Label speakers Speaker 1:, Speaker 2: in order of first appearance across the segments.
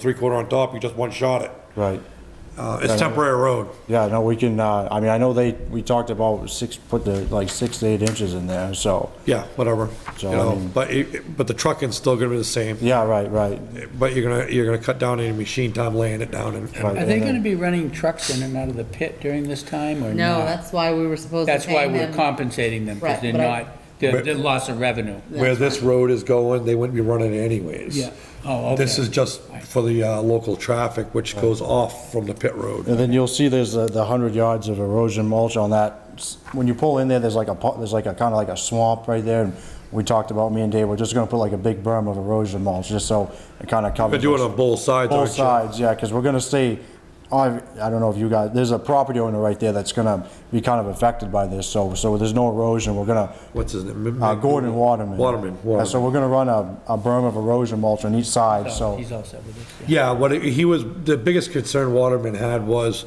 Speaker 1: three quarter on top, you just one shot it.
Speaker 2: Right.
Speaker 1: Uh, It's temporary road.
Speaker 2: Yeah, no, we can, uh, I mean, I know they, we talked about six, put the, like, six to eight inches in there, so,
Speaker 1: Yeah, whatever, you
Speaker 2: So, um, I
Speaker 1: know,
Speaker 2: mean-
Speaker 1: but, it- but the trucking's still gonna be the same,
Speaker 2: yeah, right, right.
Speaker 1: but you're gonna, you're gonna cut down any machine time laying it down and,
Speaker 2: right,
Speaker 3: Are they
Speaker 2: and
Speaker 3: gonna
Speaker 2: then-
Speaker 3: be running trucks in and out of the pit during this time or
Speaker 4: No,
Speaker 3: not?
Speaker 4: that's why we were supposed to
Speaker 3: That's why
Speaker 4: pay
Speaker 3: we're
Speaker 4: them.
Speaker 3: compensating them, because
Speaker 4: Right,
Speaker 3: they're
Speaker 4: but I-
Speaker 3: not, they're, they're loss of revenue.
Speaker 1: where this road is going, they wouldn't be running it anyways.
Speaker 3: Yeah. Oh,
Speaker 1: This
Speaker 3: okay.
Speaker 1: is just for the, uh, local traffic, which goes off from the pit road.
Speaker 2: And then you'll see there's the, the hundred yards of erosion mulch on that. S- When you pull in there, there's like a, pu- there's like a, kinda like a swamp right there, and we talked about, me and Dave, we're just gonna put like a big berm of erosion mulch, just so it kinda covers.
Speaker 1: But do it
Speaker 2: us.
Speaker 1: on both sides,
Speaker 2: Both
Speaker 1: aren't you?
Speaker 2: sides, yeah, because we're gonna stay, I, I don't know if you guys, there's a property owner right there that's gonna be kind of affected by this, so, so there's no erosion, we're gonna,
Speaker 1: What's his name?
Speaker 2: uh, Gordon Waterman.
Speaker 1: Waterman,
Speaker 2: Yeah, So
Speaker 1: Waterman.
Speaker 2: we're gonna run a, a berm of erosion mulch on each side,
Speaker 3: Oh,
Speaker 2: so,
Speaker 3: He's all set with this, yeah.
Speaker 1: Yeah, what he was, the biggest concern Waterman had was,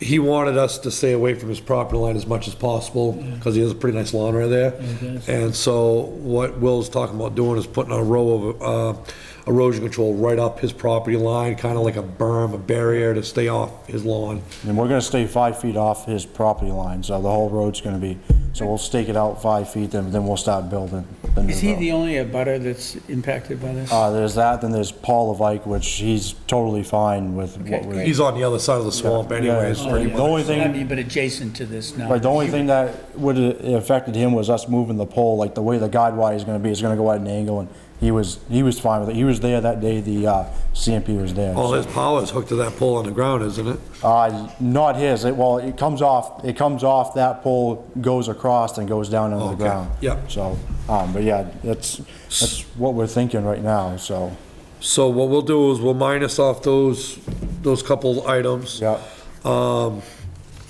Speaker 1: he wanted us to stay away from his property line as much as possible, because he has a pretty nice lawn right there.
Speaker 3: does.
Speaker 1: And so what Will's talking about doing is putting a row of uh, erosion control right up his property line, kind of like a berm, a barrier to stay off his lawn.
Speaker 2: and we're gonna stay five feet off his property line, so the whole road's gonna be, so we'll stake it out five feet, then, then we'll start building. the new
Speaker 3: Is he
Speaker 2: road.
Speaker 3: the only abutter that's impacted by this?
Speaker 2: Uh, there's that, then there's Paul Levike, which he's totally fine with what
Speaker 3: Okay,
Speaker 2: we're.
Speaker 3: great.
Speaker 1: He's on the other side of the swamp anyways,
Speaker 2: yeah.
Speaker 3: Oh,
Speaker 1: pretty
Speaker 3: yeah.
Speaker 2: The only thing-
Speaker 3: I mean, but adjacent to this now.
Speaker 2: Like, the only thing that would have affected him was us moving the pole, like, the way the guide wire is gonna be, it's gonna go at an angle, and he was, he was fine with it. He was there that day, the, uh, CMP was there.
Speaker 1: All his power is hooked to that pole on the ground, isn't it?
Speaker 2: Uh, not his, it, well, it comes off, it comes off that pole, goes across and goes down into the
Speaker 1: Okay,
Speaker 2: ground.
Speaker 1: yep.
Speaker 2: So, um, but yeah, that's, that's what we're thinking right now, so,
Speaker 1: So what we'll do is we'll minus off those, those couple items. Um,
Speaker 2: yeah.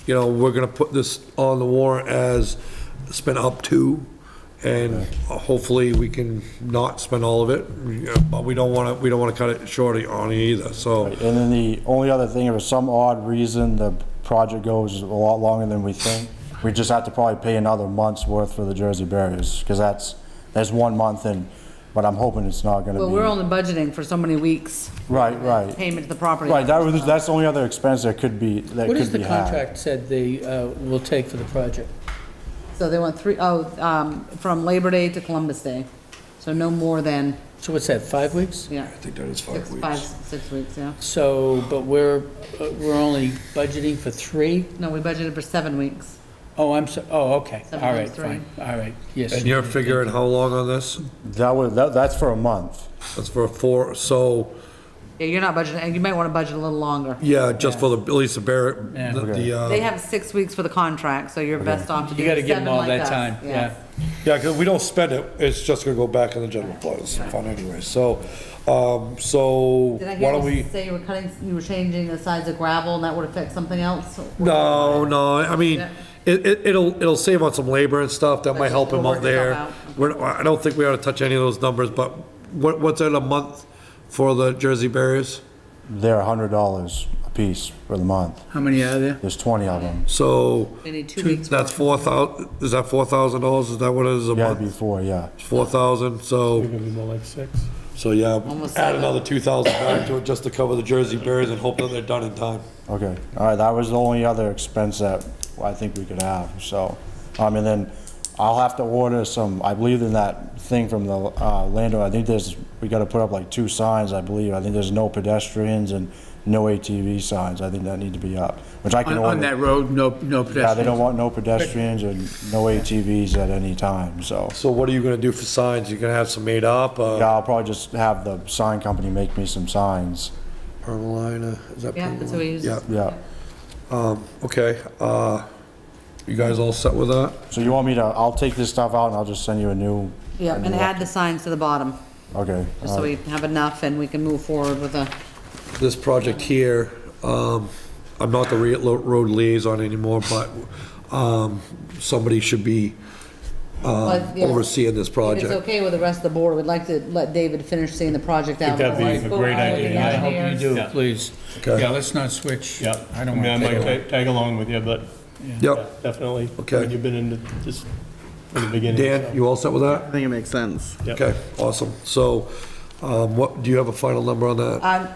Speaker 1: you know, we're gonna put this on the warrant as spend up to, and hopefully we can not spend all of it, but we don't wanna, we don't wanna cut it short on it either, so.
Speaker 2: And then the only other thing, if for some odd reason the project goes a lot longer than we think, we just have to probably pay another month's worth for the Jersey barriers, because that's, that's one month and, but I'm hoping it's not gonna be.
Speaker 4: Well, we're only budgeting for so many weeks.
Speaker 2: Right, right.
Speaker 4: Payment to the property.
Speaker 2: Right, that was, that's the only other expense that could be, that
Speaker 3: What
Speaker 2: could
Speaker 3: is the
Speaker 2: be had.
Speaker 3: contract said they, uh, will take for the project?
Speaker 4: So they went three, oh, um, from Labor Day to Columbus Day. So no more than,
Speaker 3: So what's that, five weeks?
Speaker 4: yeah,
Speaker 1: I think that is five
Speaker 4: six, five, six weeks, yeah.
Speaker 3: So, but we're, uh, we're only budgeting for three?
Speaker 4: No, we budgeted for seven weeks.
Speaker 3: Oh, I'm so, oh, okay, all
Speaker 4: Seven
Speaker 3: right,
Speaker 4: times three.
Speaker 3: fine, all right, yes.
Speaker 1: And you're figuring how long on this?
Speaker 2: That was, that, that's for a month.
Speaker 1: That's for four, so,
Speaker 4: Yeah, you're not budgeting, you might want to budget a little longer.
Speaker 1: yeah, just for the, at least the Barrett,
Speaker 3: Yeah.
Speaker 1: the- the,
Speaker 4: They
Speaker 1: uh,
Speaker 4: have six weeks for the contract, so you're best off to do
Speaker 3: You
Speaker 4: seven
Speaker 3: gotta
Speaker 4: like us.
Speaker 3: give them all that time, yeah.
Speaker 1: yeah, cause we don't spend it, it's just gonna go back in the general funds, fund anyway, so, um, so,
Speaker 4: Did I
Speaker 1: why
Speaker 4: hear
Speaker 1: don't we?
Speaker 4: you say you were cutting, you were changing the size of gravel and that would affect something else?
Speaker 1: No, no, I mean,
Speaker 4: Yeah.
Speaker 1: it, it, it'll, it'll save on some labor and stuff, that might help him
Speaker 4: Work
Speaker 1: out
Speaker 4: itself
Speaker 1: there.
Speaker 4: out.
Speaker 1: We're, I don't think we ought to touch any of those numbers, but what, what's in a month for the Jersey barriers?
Speaker 2: They're a hundred dollars a piece for the month.
Speaker 3: How many are there?
Speaker 2: There's twenty of them.
Speaker 1: So,
Speaker 4: We need two weeks.
Speaker 1: that's four thou, is that four thousand dollars, is that what it is a
Speaker 2: Yeah,
Speaker 1: month?
Speaker 2: it'd be four, yeah.
Speaker 1: Four thousand, so,
Speaker 5: Gonna be more like six.
Speaker 1: so yeah,
Speaker 4: Almost
Speaker 1: add
Speaker 4: seven.
Speaker 1: another two thousand back to it just to cover the Jersey barriers and hope that they're done in time.
Speaker 2: Okay, all right, that was the only other expense that I think we could have, so. Um, and then I'll have to order some, I believe in that thing from the, uh, landowner, I think there's, we gotta put up like two signs, I believe. I think there's no pedestrians and no ATV signs, I think that need to be up, which I can
Speaker 3: On,
Speaker 2: order.
Speaker 3: on that road, no, no
Speaker 2: Yeah, they don't
Speaker 3: pedestrians?
Speaker 2: want no pedestrians and no ATVs at any time, so.
Speaker 1: So what are you gonna do for signs, you gonna have some made up, uh,
Speaker 2: Yeah, I'll probably just have the sign company make me some signs,
Speaker 1: permalina, uh, is that?
Speaker 4: Yeah, that's what we
Speaker 1: permalina?
Speaker 4: use.
Speaker 1: Yeah.
Speaker 2: yeah.
Speaker 1: Okay, uh, you guys all set with that?
Speaker 2: So you want me to, I'll take this stuff out and I'll just send you a new?
Speaker 4: Yeah, and add the signs to the bottom,
Speaker 2: Okay.
Speaker 4: just so we have enough and we can move forward with a,
Speaker 1: This project here, um, I'm not the rea- lo- road liaison anymore, but, um, somebody should be
Speaker 4: But, yeah,
Speaker 1: overseeing this
Speaker 4: If it's
Speaker 1: project.
Speaker 4: okay with the rest of the board, we'd like to let David finish seeing the project out.
Speaker 5: that'd be a great idea.
Speaker 3: I hope you do,
Speaker 5: Yeah.
Speaker 3: please.
Speaker 1: Okay.
Speaker 3: Yeah, let's not switch.
Speaker 5: Yep.
Speaker 3: I don't
Speaker 5: mean, I
Speaker 3: want
Speaker 5: might
Speaker 3: to.
Speaker 5: ta- tag along with you, but yeah,
Speaker 1: Yep,
Speaker 5: definitely.
Speaker 1: Okay.
Speaker 5: I mean, You've been in the- just from the beginning.
Speaker 1: Dan,
Speaker 5: so.
Speaker 1: you all set with
Speaker 6: I
Speaker 1: that?
Speaker 6: think it makes sense.
Speaker 5: Yep.
Speaker 1: Okay, awesome. So, um, what, do you have a final number on that?
Speaker 4: Um,